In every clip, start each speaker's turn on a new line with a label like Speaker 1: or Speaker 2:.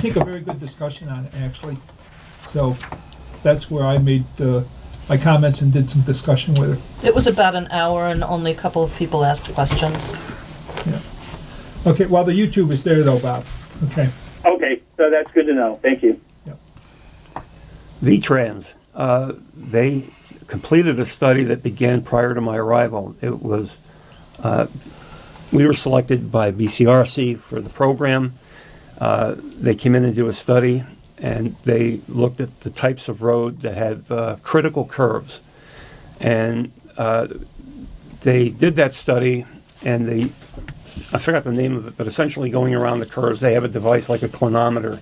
Speaker 1: I think a very good discussion on it, actually. So that's where I made uh, my comments and did some discussion with her.
Speaker 2: It was about an hour and only a couple of people asked questions.
Speaker 1: Okay, well, the YouTube is there though, Bob. Okay.
Speaker 3: Okay, so that's good to know. Thank you.
Speaker 4: V-Trans, uh, they completed a study that began prior to my arrival. It was, uh, we were selected by BCRC for the program. Uh, they came in and do a study, and they looked at the types of road that have uh, critical curves. And uh, they did that study, and they, I forgot the name of it, but essentially going around the curves, they have a device like a clinometer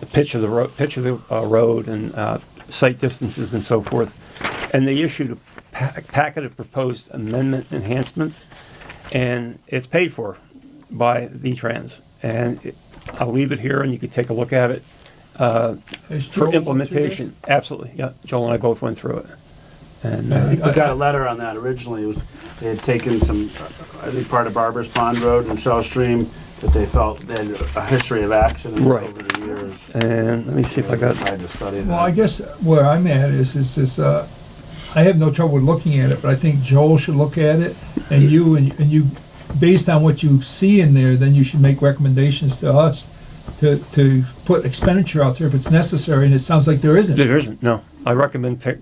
Speaker 4: the pitch of the road, pitch of the uh, road, and uh, site distances and so forth. And they issued a pa- packet of proposed amendment enhancements, and it's paid for by VTrans. And it, I'll leave it here, and you can take a look at it
Speaker 1: Has Joel
Speaker 4: for
Speaker 1: looked through
Speaker 4: implementation. Absolutely, yeah. Joel and I both went through it, and
Speaker 1: I
Speaker 4: uh,
Speaker 1: think
Speaker 5: We got a letter on that originally. It was- They had taken some, I think, part of Barber's Pond Road in South Stream that they felt they had a history of accidents
Speaker 4: Right.
Speaker 5: over the years.
Speaker 4: and let me see if I
Speaker 5: They
Speaker 4: got.
Speaker 5: decided to study
Speaker 1: Well, I
Speaker 5: that.
Speaker 1: guess where I'm at is, is, is, uh, I have no trouble looking at it, but I think Joel should look at it, and you, and and you, based on what you see in there, then you should make recommendations to us to, to put expenditure out there if it's necessary, and it sounds like there isn't.
Speaker 4: There isn't. No, I recommend pick,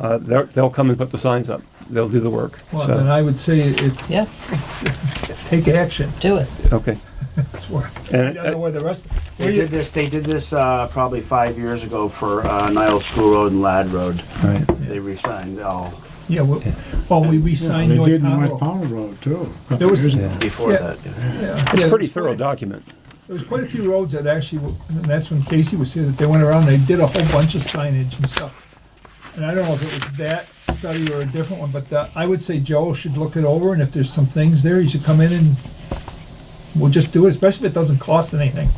Speaker 4: uh, they're- they'll come and put the signs up. They'll do the work.
Speaker 1: Well,
Speaker 4: so,
Speaker 1: then I would say it,
Speaker 2: Yeah,
Speaker 1: take action.
Speaker 2: do it.
Speaker 4: okay.
Speaker 1: That's where- I
Speaker 4: And
Speaker 1: don't know
Speaker 4: uh,
Speaker 1: where the rest, where
Speaker 5: They did
Speaker 1: you,
Speaker 5: this, they did this uh, probably five years ago for uh, Nile School Road and Lad Road.
Speaker 4: right.
Speaker 5: They resigned all
Speaker 1: yeah, well, well, we re-signed
Speaker 6: They
Speaker 1: North
Speaker 6: did North
Speaker 1: Conroe.
Speaker 6: Powell Road too. a
Speaker 1: There
Speaker 6: couple
Speaker 1: was-
Speaker 6: years ago.
Speaker 4: Yeah.
Speaker 5: before
Speaker 1: Yeah.
Speaker 5: that.
Speaker 4: It's a pretty thorough document.
Speaker 1: There was quite a few roads that actually, were- and that's when Casey was here, that they went around, they did a whole bunch of signage and stuff. And I don't know if it was that study or a different one, but uh, I would say Joe should look it over, and if there's some things there, he should come in and we'll just do it, especially if it doesn't cost anything.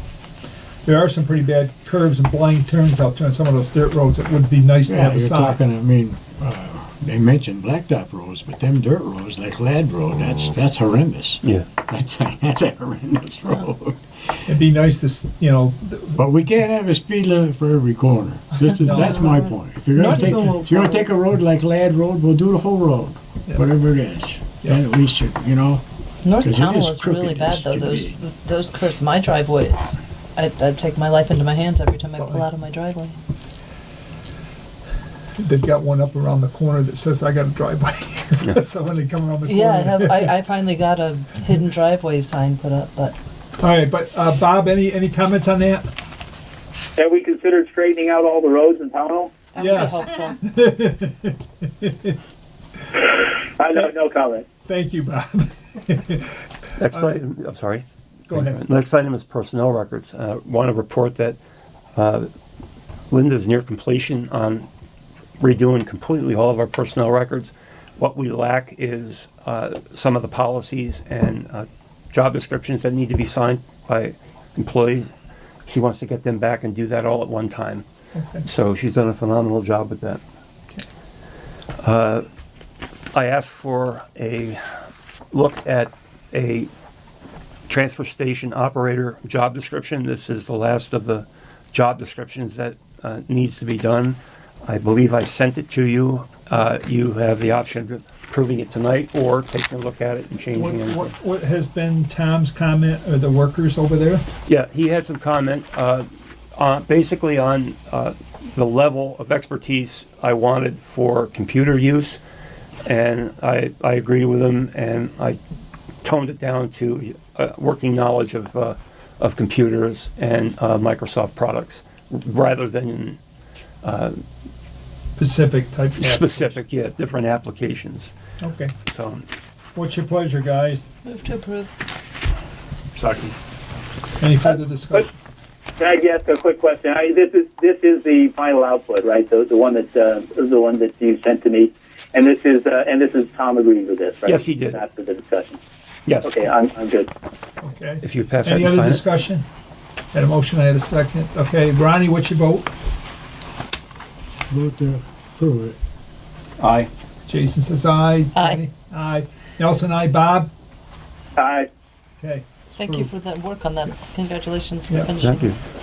Speaker 1: There are some pretty bad curves and blind turns out there on some of those dirt roads that would be nice to
Speaker 6: Yeah,
Speaker 1: have a
Speaker 6: you're
Speaker 1: sign.
Speaker 6: talking, I mean, uh, they mentioned blacktop roads, but them dirt roads like Lad Road,
Speaker 1: Oh.
Speaker 6: that's, that's horrendous.
Speaker 4: Yeah.
Speaker 6: That's, a- that's a horrendous road.
Speaker 1: It'd be nice to, s- you know, th-
Speaker 6: But we can't have a speed limit for every corner. This is,
Speaker 1: No.
Speaker 6: that's my point. If you're gonna
Speaker 1: Not
Speaker 6: take,
Speaker 1: even a
Speaker 6: if you're gonna take a road like Lad Road, we'll do the whole road,
Speaker 1: Yeah.
Speaker 6: whatever it is.
Speaker 1: Yeah.
Speaker 6: Then we should, you know,
Speaker 2: North
Speaker 6: 'Cause it
Speaker 2: Pownell
Speaker 6: is
Speaker 2: is really
Speaker 6: crooked,
Speaker 2: bad
Speaker 6: it's
Speaker 2: though,
Speaker 6: too
Speaker 2: those, those curves, my driveway is, I, I take my life into my hands every time I pull out of my driveway.
Speaker 1: they've got one up around the corner that says, I got a driveway. So so when they come around the corner.
Speaker 2: Yeah, I have, I, I finally got a hidden driveway sign put up, but
Speaker 1: All right, but uh, Bob, any, any comments on that?
Speaker 3: Have we considered straightening out all the roads in Pownell?
Speaker 2: that would be
Speaker 1: Yes.
Speaker 2: helpful.
Speaker 3: I no, no comment.
Speaker 1: Thank you, Bob.
Speaker 4: Next item, I'm sorry.
Speaker 1: Go ahead.
Speaker 4: Next item is personnel records. Uh, Want to report that uh, Linda's near completion on redoing completely all of our personnel records. What we lack is uh, some of the policies and uh, job descriptions that need to be signed by employees. She wants to get them back and do that all at one time. So she's done a phenomenal job with that. Uh, I asked for a look at a transfer station operator job description. This is the last of the job descriptions that uh, needs to be done. I believe I sent it to you. Uh, You have the option of approving it tonight or taking a look at it and
Speaker 1: What,
Speaker 4: changing
Speaker 1: what,
Speaker 4: it.
Speaker 1: what has been Tom's comment, or the workers over there?
Speaker 4: Yeah, he had some comment, uh, on- basically on uh, the level of expertise I wanted for computer use. And I, I agree with him, and I toned it down to uh, working knowledge of, uh, of computers and uh, Microsoft products, rather than
Speaker 1: Pacific type.
Speaker 4: specific, yeah, different applications.
Speaker 1: Okay.
Speaker 4: So,
Speaker 1: What's your pleasure, guys?
Speaker 2: Move to approve.
Speaker 5: Second.
Speaker 4: Uh,
Speaker 1: Any further discussion?
Speaker 3: Can I ask a quick question? I, this is this is the final output, right? The, the one that uh, the one that you sent to me, and this is uh, and this is Tom agrees with this, right?
Speaker 4: Yes, he did.
Speaker 3: Not for the discussion.
Speaker 4: yes,
Speaker 3: Okay, uh, I'm, I'm good.
Speaker 1: Okay.
Speaker 4: if you pass that
Speaker 1: Any
Speaker 4: and
Speaker 1: other
Speaker 4: sign it.
Speaker 1: discussion? Had a motion, I had a second. Okay, Ronnie, what's your vote?
Speaker 6: vote to approve it.
Speaker 5: Aye.
Speaker 1: Jason says aye.
Speaker 2: Aye.
Speaker 1: Jenny? Aye. Nelson, aye. Bob?
Speaker 3: Hi.
Speaker 1: Okay. it's
Speaker 2: Thank you
Speaker 1: approved.
Speaker 2: for that work on that, congratulations for
Speaker 1: Yeah,
Speaker 2: finishing.
Speaker 4: Thank you.